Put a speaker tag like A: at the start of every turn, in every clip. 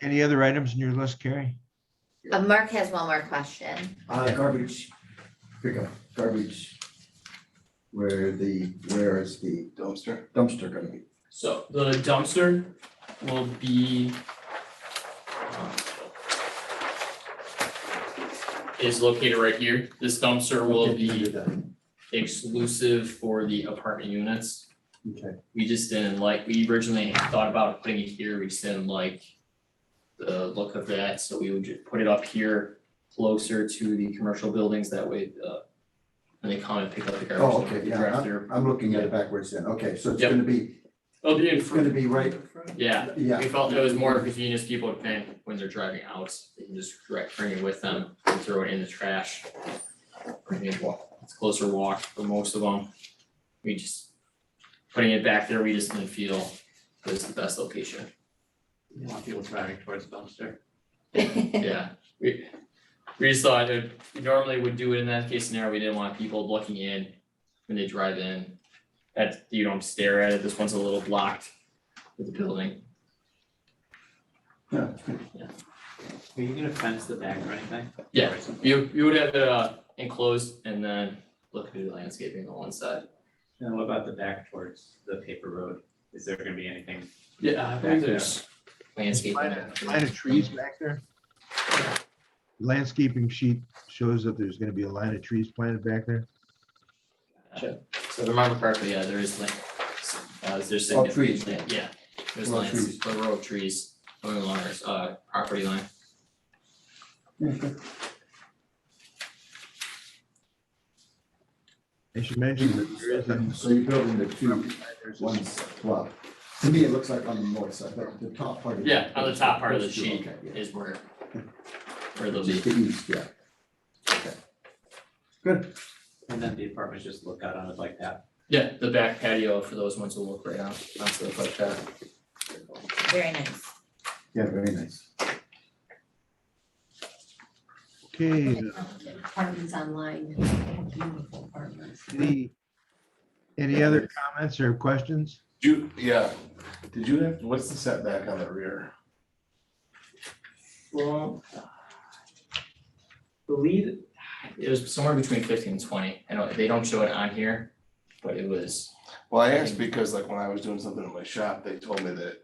A: Any other items in your list, Carrie?
B: Uh, Mark has one more question.
C: Uh, garbage, pickup, garbage. Where the, where is the
D: dumpster.
C: dumpster gonna be?
E: So the dumpster will be um, is located right here. This dumpster will be exclusive for the apartment units.
C: Okay,
E: We just didn't like, we originally thought about putting it here, we just didn't like the look of that, so we would just put it up here closer to the commercial buildings, that way uh when they come and pick up the garbage,
C: oh,
E: they
C: okay,
E: can
C: yeah,
E: drive
C: I'm,
E: through.
C: I'm looking at it backwards then, okay, so it's
E: Yep.
C: gonna be,
E: Oh, they didn't
C: it's gonna be right,
E: yeah,
C: yeah,
E: We felt it was more convenient if people would pay when they're driving out, they can just direct bring it with them and throw it in the trash. Bring it walk, it's closer walk for most of them. We just, putting it back there, we just didn't feel was the best location,
F: You want people driving towards the dumpster.
E: yeah. We, we just thought it, we normally would do it in that case scenario, we didn't want people looking in when they drive in. That, you don't stare at it, this one's a little blocked with the building,
C: yeah,
F: Are you gonna fence the back or anything?
E: Yeah.
F: Or is it-
E: You you would have it uh enclosed and then look at the landscaping on one side.
F: And what about the back towards the paper road? Is there gonna be anything?
E: Yeah, I
F: believe
E: there's. Landscaping.
A: Line of line of trees back there? Landscaping sheet shows that there's gonna be a line of trees planted back there.
E: So if I remember correctly, yeah, there is like, uh there's
C: All trees.
E: significant land- yeah. There's
C: All
E: lands, a row of trees going along our uh property line.
A: I should mention that there is a.
C: so you're building the two,
A: there's a-
C: ones, well, to me, it looks like on the north side, but the top part of. the-
E: Yeah, on the top part of the
C: Those two,
E: sheet
C: okay, yeah.
E: is where where those
C: Just the east, yeah. Okay. Good,
F: And then the apartments just look out on it like that?
E: yeah, the back patio for those ones will look right out onto the like that.
B: Very nice.
C: yeah, very nice.
A: Okay,
B: Apartments online. Beautiful apartments.
A: any, any other comments or questions?
D: You, yeah, did you have, what's the setback on the rear?
E: Well. Believe. It was somewhere between fifteen and twenty, I know, they don't show it on here, but it was,
D: Well, I asked because like when I was doing something in my shop, they told me that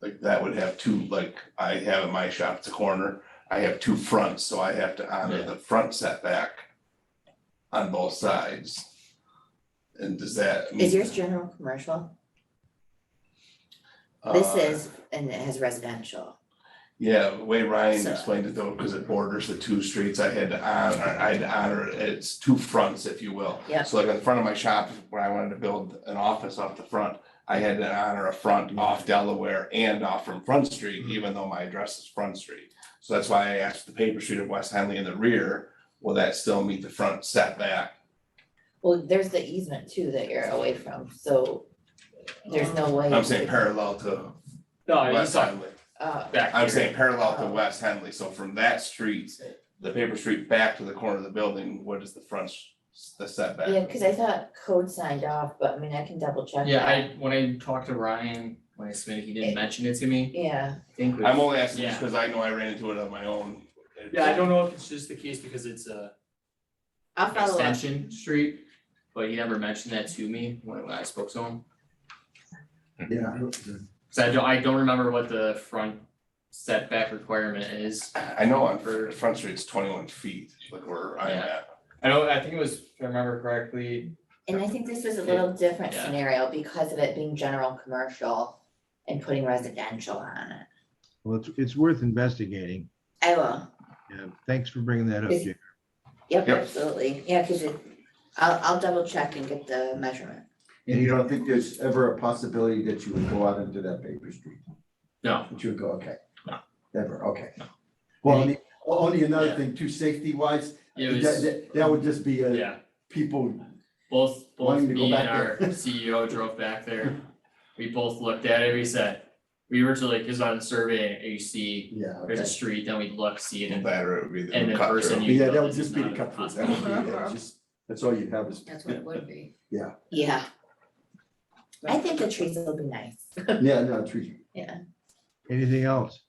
D: like that would have two, like I have in my shop, it's a corner, I have two fronts, so I have to honor
E: Yeah.
D: the front setback on both sides. And does that?
B: Is yours general commercial? This
D: Uh,
B: is, and it has residential.
D: Yeah, the way Ryan
B: So-
D: explained it though, because it borders the two streets, I had to honor, I had to honor, it. it's two fronts, if you will.
B: Yep.
D: So like in front of my shop, where I wanted to build an office off the front, I had to honor a front off Delaware and off from Front Street, even though my address is Front Street. So that's why I asked the paper street of West Henley in the rear, will that still meet the front setback?
B: Well, there's the easement too that you're away from, so there's no way.
D: I'm saying parallel to
E: no,
F: Oh,
E: I
D: West
E: saw
D: Henley.
B: Uh,
E: back
D: I'm
E: here.
D: saying parallel
B: Uh-huh.
D: to West Henley, so from that street, the paper street back to the corner of the building, what is the front, s- the setback?
B: yeah, cause I thought code signed off, but I mean, I can double check.
E: Yeah,
B: that.
E: I, when I talked to Ryan, when I submitted, he didn't mention it to me,
B: Yeah,
E: I think. we-
D: I'm only asking just
E: Yeah.
D: because I know I ran into it on my own.
E: Yeah, I don't know if it's just the case because it's uh, a
B: I'll follow up.
E: extension street, but he never mentioned that to me when I spoke to him. Hmm.
C: Yeah.
E: Cause I don't, I don't remember what the front setback requirement is.
D: I know on for Front Street's twenty-one feet, like where I'm
E: Yeah.
D: at.
E: I know, I think it was, if I remember correctly,
B: And I think this was a little different
E: Yeah.
B: scenario because of it being general commercial and putting residential on it.
A: Well, it's, it's worth investigating.
B: I will,
A: Yeah, thanks for bringing that up,
B: Is-
A: Jim.
B: yep,
D: Yep.
B: absolutely, yeah, cause it, I'll, I'll double check and get the measurement.
C: And you don't think there's ever a possibility that you would go out into that paper street?
E: No.
C: That you would go, okay.
E: No.
C: Never, okay.
E: No.
C: Well, only, only another
E: Yeah.
C: thing too, safety wise, that,
E: it was.
C: that, that would just be a
E: Yeah,
C: people,
E: both, both
C: Wanting to go
E: me and our
C: back there.
E: CEO drove back there. We both looked at it, we said, we originally, cause on the survey, you see,
C: yeah,
E: there's a
C: okay.
E: street, then we look, see it, and
D: Better it would be the
E: And the
D: cut
E: person
D: through.
E: you
C: Yeah,
E: know
C: that would
E: this
C: just
E: is
C: be the
E: not
C: cut through, that would be, that's just, that's all you have is.
G: That's what it would be.
B: Yeah. I think the trees will be nice.
C: Yeah, no, trees,
A: Anything else?